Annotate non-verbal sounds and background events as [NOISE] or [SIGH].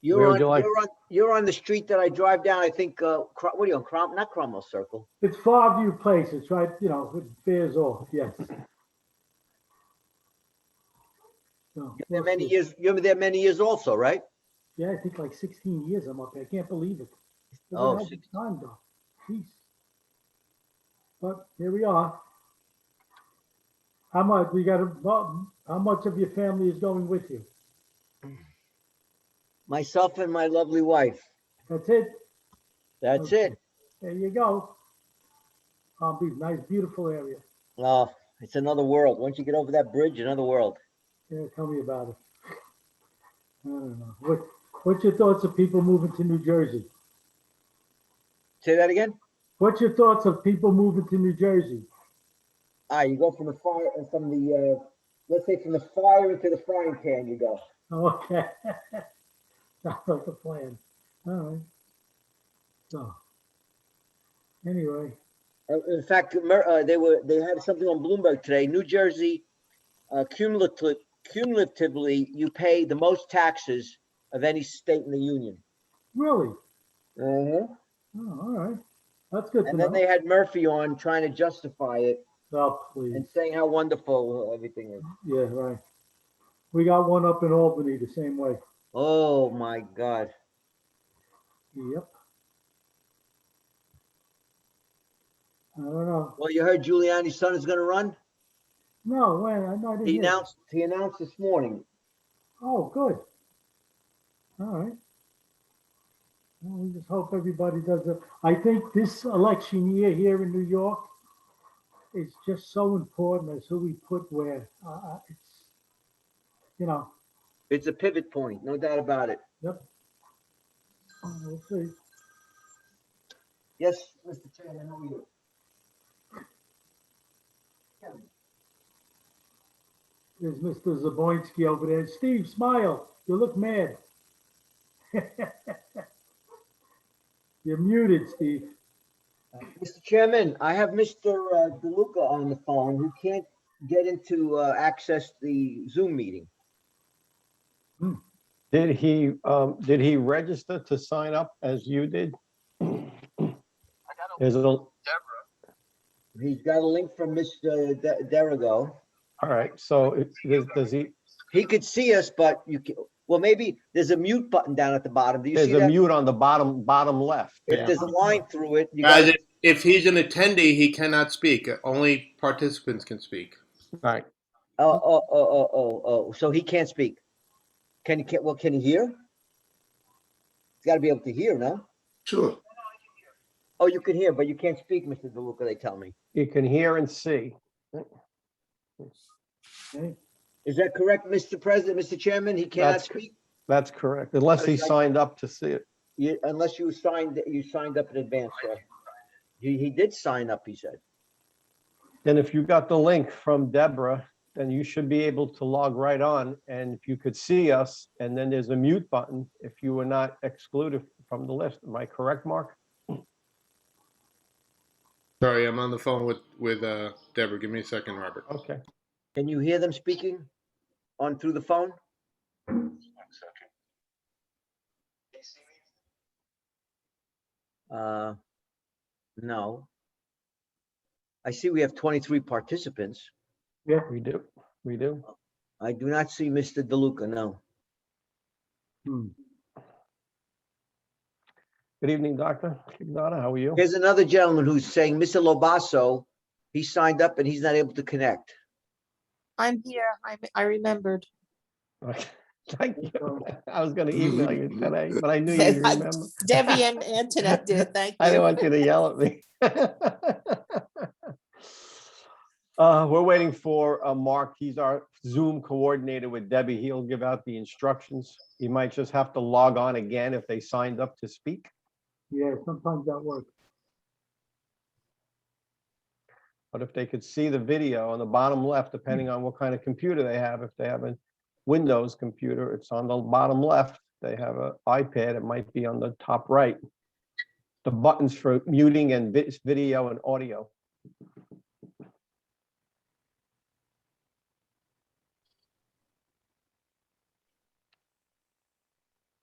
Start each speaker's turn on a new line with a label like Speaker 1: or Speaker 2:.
Speaker 1: You're
Speaker 2: Where would
Speaker 1: on,
Speaker 2: you like-
Speaker 1: you're on, you're on the street that I drive down, I think, uh, Cro- what are you on, Crom, not Cromwell Circle?
Speaker 3: It's Farview Place, it's right, you know, it veers off, yes. So,
Speaker 1: There many years, you were there many years also, right?
Speaker 3: Yeah, I think like sixteen years I'm up there, I can't believe it. Look at
Speaker 1: Oh,
Speaker 3: how much
Speaker 1: 16.
Speaker 3: Time though, jeez. But here we are. How much, we got, a well, how much of your family is going with you?
Speaker 1: Myself and my lovely wife.
Speaker 3: That's it?
Speaker 1: That's
Speaker 3: Okay.
Speaker 1: it.
Speaker 3: There you go. Palm Beach, nice, beautiful area.
Speaker 1: Oh, it's another world. Once you get over that bridge, another world.
Speaker 3: Yeah, tell me about it. I don't know. What, what's your thoughts of people moving to New Jersey?
Speaker 1: Say that again?
Speaker 3: What's your thoughts of people moving to New Jersey? [LAUGHS]
Speaker 1: Ah, you go from the fire, uh, from the, uh, let's say from the fire into the frying pan you go.
Speaker 3: Okay. Sounds like a plan. All right. So, anyway,
Speaker 1: Uh, In fact, Amer- uh, they were, they had something on Bloomberg today, New Jersey, uh, cumulatively, cumulatively, you pay the most taxes of any state in the union.
Speaker 3: really?
Speaker 1: Uh-huh.
Speaker 3: Oh, all right. That's good to
Speaker 1: And then
Speaker 3: know.
Speaker 1: they had Murphy on trying to justify it
Speaker 3: Oh, please.
Speaker 1: and saying how wonderful everything is.
Speaker 3: Yeah, right. We got one up in Albany the same way.
Speaker 1: Oh my God.
Speaker 3: Yep. I don't know.
Speaker 1: Well, you heard Giuliani's son is going to run.
Speaker 3: No, wait, I no, I didn't.
Speaker 1: He
Speaker 3: hear that.
Speaker 1: announced. He announced this morning.
Speaker 3: Oh, good. All right. Well, we just hope everybody does it. I think this election year here in New York is just so important as who we put where. Uh, uh, it's, you know,
Speaker 1: It's a pivot point, no doubt about it.
Speaker 3: uh, we'll see.
Speaker 1: Yes, Mr. Chairman, how are you?
Speaker 3: There's Mr. Zaboinski over there. Steve, smile. You look mad. [LAUGHS] You're muted, Steve.
Speaker 1: Mr. Chairman, I have Mr. uh, DeLuca on the phone who can't get into uh, access the Zoom meeting.
Speaker 2: Did he, um, did he register to sign up as you did?
Speaker 4: I got a
Speaker 2: There's a, all
Speaker 4: Deborah.
Speaker 1: He's got a link from Mr. De- Derigo.
Speaker 2: right, so it- does, does he,
Speaker 1: He could see us, but you can, well, maybe there's a mute button down at the bottom. Do you see
Speaker 2: there's a
Speaker 1: that?
Speaker 2: mute on the bottom, bottom left.
Speaker 1: If there's a line through it, you
Speaker 5: Guys,
Speaker 1: got,
Speaker 5: if, if he's an attendee, he cannot speak. Only participants can speak.
Speaker 2: Right,
Speaker 1: oh, oh, oh, oh, oh, oh, so he can't speak. Can he, can, well, can he hear? He's gotta be able to hear, no?
Speaker 5: Sure.
Speaker 1: Oh, you can hear, but you can't speak, Mr. DeLuca, they tell me.
Speaker 2: you can hear and see.
Speaker 3: Okay.
Speaker 1: Is that correct, Mr. President, Mr. Chairman? He cannot
Speaker 2: That's cor-
Speaker 1: speak
Speaker 2: That's correct, unless he signed up to see it.
Speaker 1: You- unless you signed, you signed up in advance, sir. He, he did sign up, he said.
Speaker 2: And if you got the link from Deborah, then you should be able to log right on. And if you could see us, and then there's a mute button if you were not excluded from the list. Am I correct, Mark?
Speaker 5: Sorry, I'm on the phone with, with uh, Deborah. Give me a second, Robert.
Speaker 2: Okay,
Speaker 1: Can you hear them speaking on through the phone?
Speaker 4: One second. Can you see me?
Speaker 1: Uh, no. I see we have twenty-three participants.
Speaker 2: we do, we do.
Speaker 1: I do not see Mr. DeLuca, no.
Speaker 3: Hmm.
Speaker 2: Good evening, Doctor. Kignata, how are you?
Speaker 1: Here's another gentleman who's saying, Mr. Lobasso, he signed up and he's not able to connect.
Speaker 6: I'm here. I, I remembered.
Speaker 2: Okay. [LAUGHS] Thank you. [LAUGHS] I was gonna email you today, but
Speaker 6: [LAUGHS]
Speaker 2: I knew you'd
Speaker 6: I-
Speaker 2: remember.
Speaker 6: Debbie and Antoinette did. Thank
Speaker 2: [LAUGHS] I didn't
Speaker 6: you.
Speaker 2: want you to yell at me. [LAUGHS] Uh, we're waiting for, uh, Mark. He's our Zoom coordinator with Debbie. He'll give out the instructions. You might just have to log on again if they signed up to speak.
Speaker 3: Yeah, sometimes that works.
Speaker 2: But if they could see the video on the bottom left, depending on what kind of computer they have, if they have a Windows computer, it's on the bottom left. They have an iPad, it might be on the top right. The buttons for muting and vid- video and audio.